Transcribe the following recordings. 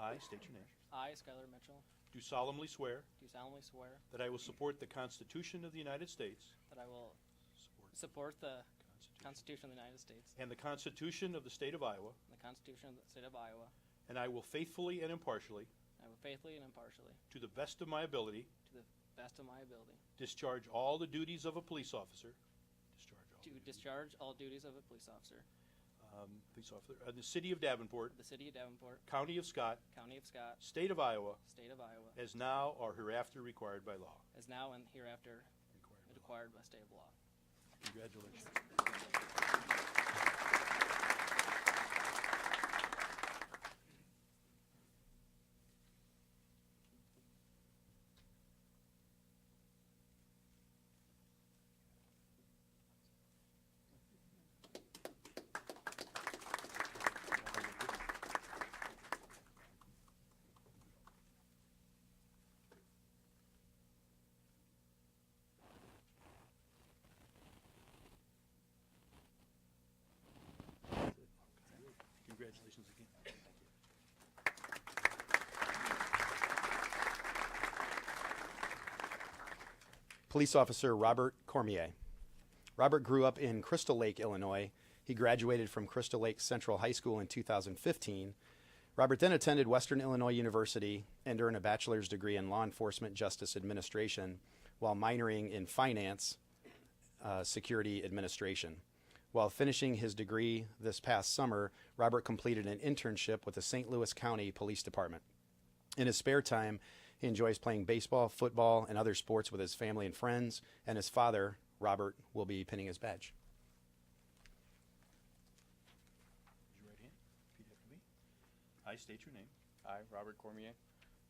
I state your name. I, Skylar Mitchell, Do solemnly swear do solemnly swear that I will support the Constitution of the United States that I will support the Constitution of the United States and the Constitution of the State of Iowa, and the Constitution of the State of Iowa, and I will faithfully and impartially, and I will faithfully and impartially, to the best of my ability, to the best of my ability, discharge all the duties of a police officer. Discharge all to the duties. discharge all duties of a police officer Um, Police officer, of the City of Davenport, of the City of Davenport, County of Scott, County of Scott, State of Iowa, State of Iowa, as now or hereafter required by law. as now and hereafter required by state of law. Congratulations. Congratulations again. police officer Robert Cormier. Robert grew up in Crystal Lake, Illinois. He graduated from Crystal Lake Central High School in 2015. Robert then attended Western Illinois University and earned a bachelor's degree in law enforcement justice administration while minoring in finance uh, security administration. While finishing his degree this past summer, Robert completed an internship with the St. Louis County Police Department. In his spare time, he enjoys playing baseball, football, and other sports with his family and friends, and his father, Robert, will be pinning his badge. Raise your right hand. Repeat after me. I state your name. I, Robert Cormier,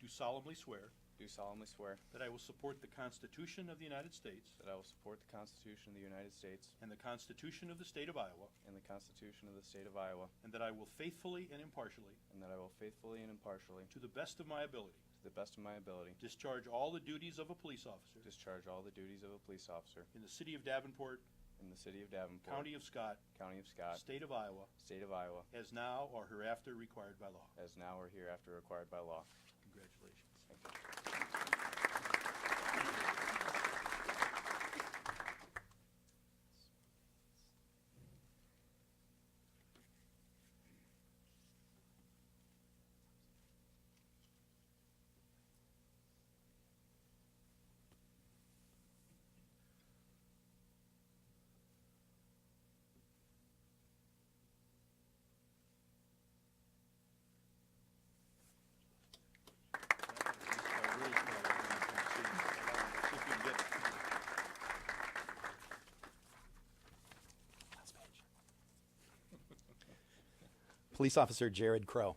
Do solemnly swear do solemnly swear that I will support the Constitution of the United States that I will support the Constitution of the United States and the Constitution of the State of Iowa, and the Constitution of the State of Iowa, and that I will faithfully and impartially, and that I will faithfully and impartially, to the best of my ability, to the best of my ability, discharge all the duties of a police officer discharge all the duties of a police officer in the City of Davenport, in the City of Davenport, County of Scott, County of Scott, State of Iowa, State of Iowa, as now or hereafter required by law. as now or hereafter required by law. Congratulations. Thank you. uh, Police officer Jared Crow.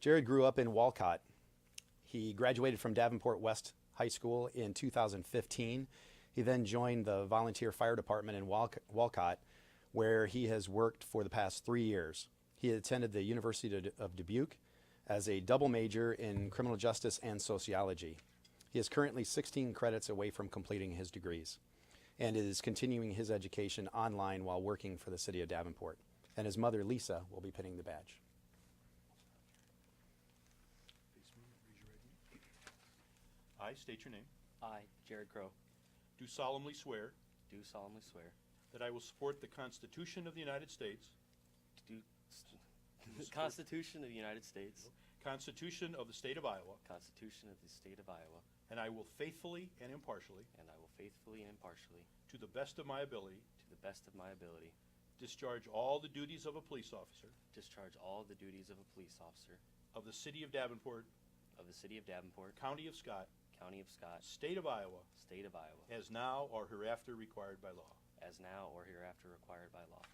Jared grew up in Walcott. He graduated from Davenport West High School in 2015. He then joined the volunteer fire department in Walc- Walcott, where he has worked for the past three years. He attended the University of Du- of Dubuque as a double major in criminal justice and sociology. He is currently 16 credits away from completing his degrees and is continuing his education online while working for the city of Davenport. And his mother, Lisa, will be pinning the badge. I state your name. I, Jared Crow, Do solemnly swear do solemnly swear that I will support the Constitution of the United States, to do the Constitution of the United States, Constitution of the State of Iowa, Constitution of the State of Iowa, and I will faithfully and impartially, and I will faithfully and impartially, to the best of my ability, to the best of my ability, discharge all the duties of a police officer discharge all the duties of a police officer of the City of Davenport, of the City of Davenport, County of Scott, County of Scott, State of Iowa, State of Iowa, as now or hereafter required by law. as now or hereafter required by law.